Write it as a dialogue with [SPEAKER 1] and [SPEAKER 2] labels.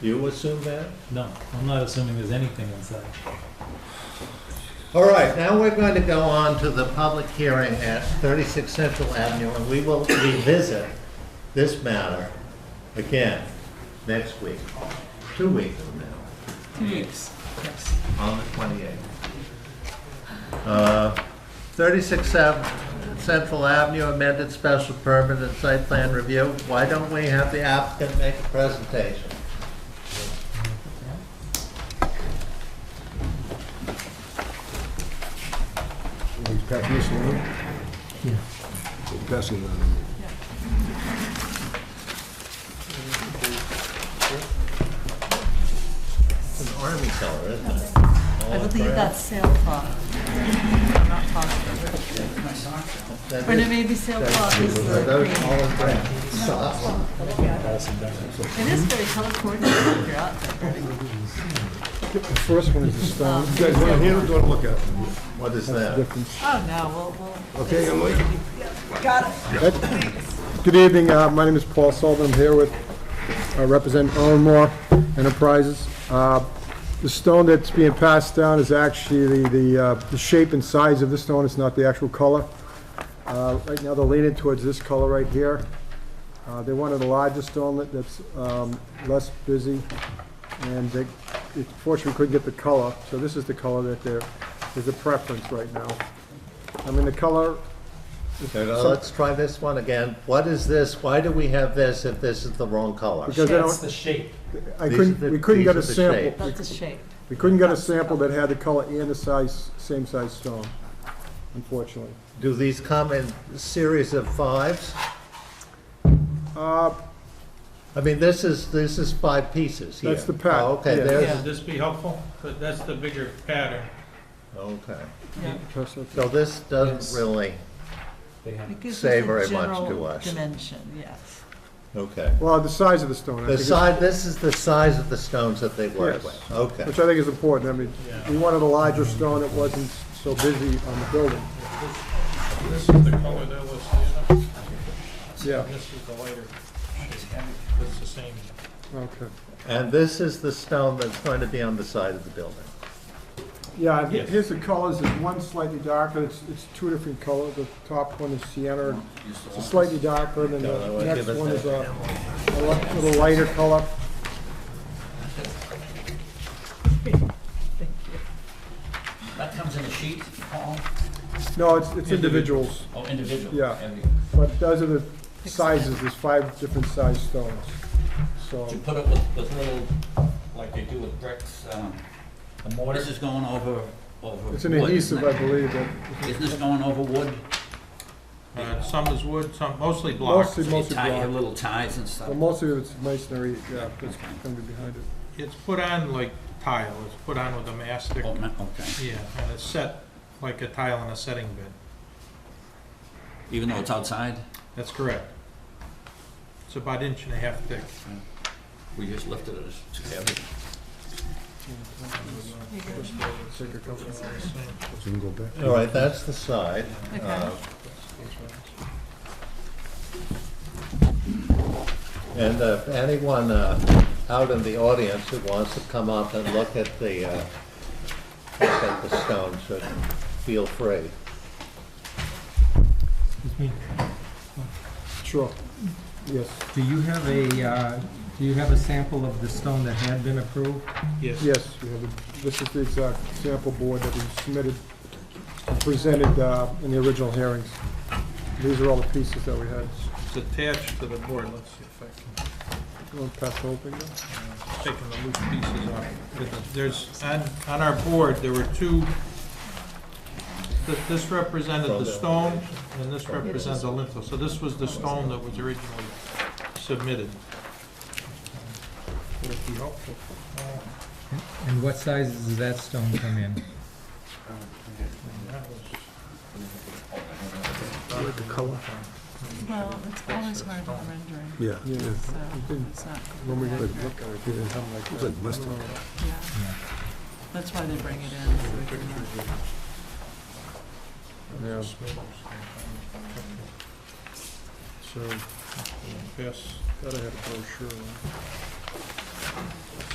[SPEAKER 1] You assume that?
[SPEAKER 2] No, I'm not assuming there's anything inside.
[SPEAKER 1] All right, now we're going to go on to the public hearing at 36 Central Avenue, and we will revisit this matter again next week, two weeks from now,
[SPEAKER 3] Two weeks, yes.
[SPEAKER 1] on the 28th. Uh, 36 Ave- Central Avenue amended special permit and site plan review. Why don't we have the applicant make a presentation?
[SPEAKER 4] Are you passing this along? Yeah. Passing that.
[SPEAKER 1] It's an army color, isn't it?
[SPEAKER 3] I believe that's sailcloth. I'm not positive.
[SPEAKER 1] That
[SPEAKER 3] Or no,
[SPEAKER 1] is-
[SPEAKER 3] maybe sailcloth is
[SPEAKER 1] Are
[SPEAKER 3] the
[SPEAKER 1] those
[SPEAKER 3] green.
[SPEAKER 1] olive brown socks?
[SPEAKER 3] It is very color coordinated if you're out there.
[SPEAKER 4] The first one is the stone.
[SPEAKER 3] Um,
[SPEAKER 4] You guys want to hear it, or look at it?
[SPEAKER 1] What is that?
[SPEAKER 3] Oh, no, we'll, we'll.
[SPEAKER 4] Okay, Emily?
[SPEAKER 3] Got it.
[SPEAKER 4] Good evening, uh, my name is Paul Sullivan, I'm here with, uh, represent Owen Moore Enterprises. Uh, The stone that's being passed down is actually the, the, uh, the shape and size of the stone, it's not the actual color. Uh, Right now, they're leaning towards this color right here. Uh, They wanted a larger stone that- that's um, less busy, and they, it- fortunately, couldn't get the color, so this is the color that they're, is the preference right now. I mean, the color
[SPEAKER 1] Okay, now let's try this one again. What is this? Why do we have this if this is the wrong color?
[SPEAKER 4] Because I
[SPEAKER 2] That's
[SPEAKER 4] don't,
[SPEAKER 2] the shape.
[SPEAKER 4] I
[SPEAKER 1] These are
[SPEAKER 4] couldn't,
[SPEAKER 1] the-
[SPEAKER 4] we couldn't get a
[SPEAKER 1] these are the
[SPEAKER 4] sample.
[SPEAKER 3] That's a shape.
[SPEAKER 4] We couldn't get a sample that had the color and the size, same size stone, unfortunately.
[SPEAKER 1] Do these come in series of fives?
[SPEAKER 4] Uh,
[SPEAKER 1] I mean, this is, this is five pieces here.
[SPEAKER 4] That's the pack,
[SPEAKER 1] Oh, Okay,
[SPEAKER 4] yeah.
[SPEAKER 1] there's,
[SPEAKER 3] Yeah.
[SPEAKER 5] Would this be helpful? But that's the bigger pattern.
[SPEAKER 1] okay.
[SPEAKER 3] Yeah.
[SPEAKER 4] that's okay.
[SPEAKER 1] So this
[SPEAKER 2] Yes.
[SPEAKER 1] doesn't really,
[SPEAKER 2] They have
[SPEAKER 3] It gives us
[SPEAKER 1] Say
[SPEAKER 3] a
[SPEAKER 1] very much
[SPEAKER 3] general
[SPEAKER 1] to us.
[SPEAKER 3] Dimension, yes.
[SPEAKER 1] okay.
[SPEAKER 4] Well, the size of the stone, I
[SPEAKER 1] The
[SPEAKER 4] think, is-
[SPEAKER 1] size, this is the size of the stones that they work
[SPEAKER 4] Yes.
[SPEAKER 1] with. Okay.
[SPEAKER 4] which I think is important. I mean, we wanted a larger stone that wasn't so busy on the building.
[SPEAKER 5] This is the color that was, you know,
[SPEAKER 4] Yeah,
[SPEAKER 5] and this is the lighter. It's the same.
[SPEAKER 4] okay.
[SPEAKER 1] And this is the stone that's going to be on the side of the building.
[SPEAKER 4] Yeah,
[SPEAKER 5] Yes.
[SPEAKER 4] here's the colors, there's one slightly darker, it's, it's two different colors. The top one is sienna, it's slightly darker, and then
[SPEAKER 1] No, no,
[SPEAKER 4] the
[SPEAKER 1] I'll
[SPEAKER 4] next
[SPEAKER 1] give us
[SPEAKER 4] one
[SPEAKER 1] that.
[SPEAKER 4] is a a li- little lighter color.
[SPEAKER 3] Thank you.
[SPEAKER 6] That comes in a sheet, Paul?
[SPEAKER 4] No, it's, it's individuals.
[SPEAKER 6] Oh, individual?
[SPEAKER 4] Yeah.
[SPEAKER 6] And we-
[SPEAKER 4] But those are the sizes, there's five different size stones. So,
[SPEAKER 6] You put it with, with little, like they do with bricks, um, the mortise is going over, over.
[SPEAKER 4] it's an
[SPEAKER 6] wood,
[SPEAKER 4] adhesive, I
[SPEAKER 6] isn't it?
[SPEAKER 4] believe, that
[SPEAKER 6] Isn't this going over wood?
[SPEAKER 5] Uh, Some is wood, some mostly block.
[SPEAKER 4] mostly,
[SPEAKER 6] So you
[SPEAKER 4] mostly
[SPEAKER 6] tie your
[SPEAKER 4] block.
[SPEAKER 6] little ties and
[SPEAKER 4] But
[SPEAKER 6] stuff.
[SPEAKER 4] mostly it's masonry, yeah, that's gonna be behind it.
[SPEAKER 5] It's put on like tile, it's put on with a mastic.
[SPEAKER 6] Oh, ma- Okay,
[SPEAKER 5] Yeah, and it's set like a tile in a setting bed.
[SPEAKER 6] even though it's outside,
[SPEAKER 5] That's correct. It's about inch and a half thick.
[SPEAKER 6] we just lifted it as too heavy.
[SPEAKER 4] Take a couple of-
[SPEAKER 1] All right, that's the side.
[SPEAKER 3] Okay.
[SPEAKER 1] Uh, And uh, if anyone uh, out in the audience who wants to come up and look at the, uh, look at the stone should feel free.
[SPEAKER 4] Sure, yes,
[SPEAKER 7] Do you have a, uh, do you have a sample of the stone that had been approved?
[SPEAKER 5] Yes.
[SPEAKER 4] yes, we have, a- this is the exact sample board that we submitted, and presented uh, in the original hearings. These are all the pieces that we had.
[SPEAKER 5] It's attached to the board. Let's see if I can.
[SPEAKER 4] You want to pass the whole thing down?
[SPEAKER 5] taking the loose pieces off. There's, on, on our board, there were two, th- this represented the stone, and this represents the lintel. So this was the stone that was originally submitted. Would it be helpful?
[SPEAKER 7] And what sizes does that stone come in?
[SPEAKER 5] That was-
[SPEAKER 3] Well, it's always hard on rendering,
[SPEAKER 8] Yeah,
[SPEAKER 4] Yeah,
[SPEAKER 3] so
[SPEAKER 4] think-
[SPEAKER 3] it's not,
[SPEAKER 4] when we get a look at it, it'll come like that.
[SPEAKER 3] yeah. That's why they bring it in, so we can, uh,
[SPEAKER 4] Yeah, so,
[SPEAKER 5] Yes.
[SPEAKER 4] gotta have a brochure.